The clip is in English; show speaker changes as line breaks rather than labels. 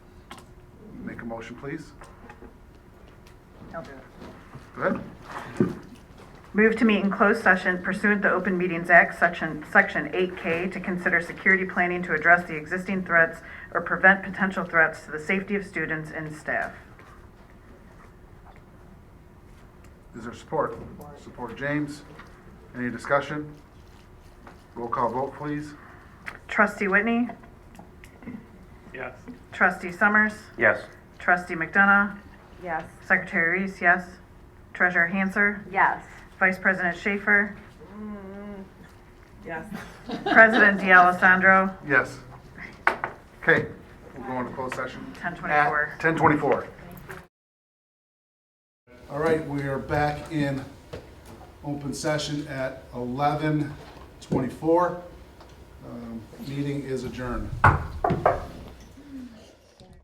motion, please?
I'll do it.
Go ahead.
Move to meet in closed session pursuant to Open Meetings Act, Section, Section 8K, to consider security planning to address the existing threats or prevent potential threats to the safety of students and staff.
Is there support? Support James. Any discussion? Roll call vote, please.
Trustee Whitney,
Yes.
trustee Summers,
Yes.
trustee McDonough,
Yes.
secretary Reese, yes. Treasurer Hanser,
Yes.
vice president Schaefer,
Yes.
president D'Alessandro,
Yes. Okay, we're going to closed session.
10:24.
Ten twenty-four. All right, we are back in open session at Um, eleven twenty-four. Meeting is adjourned.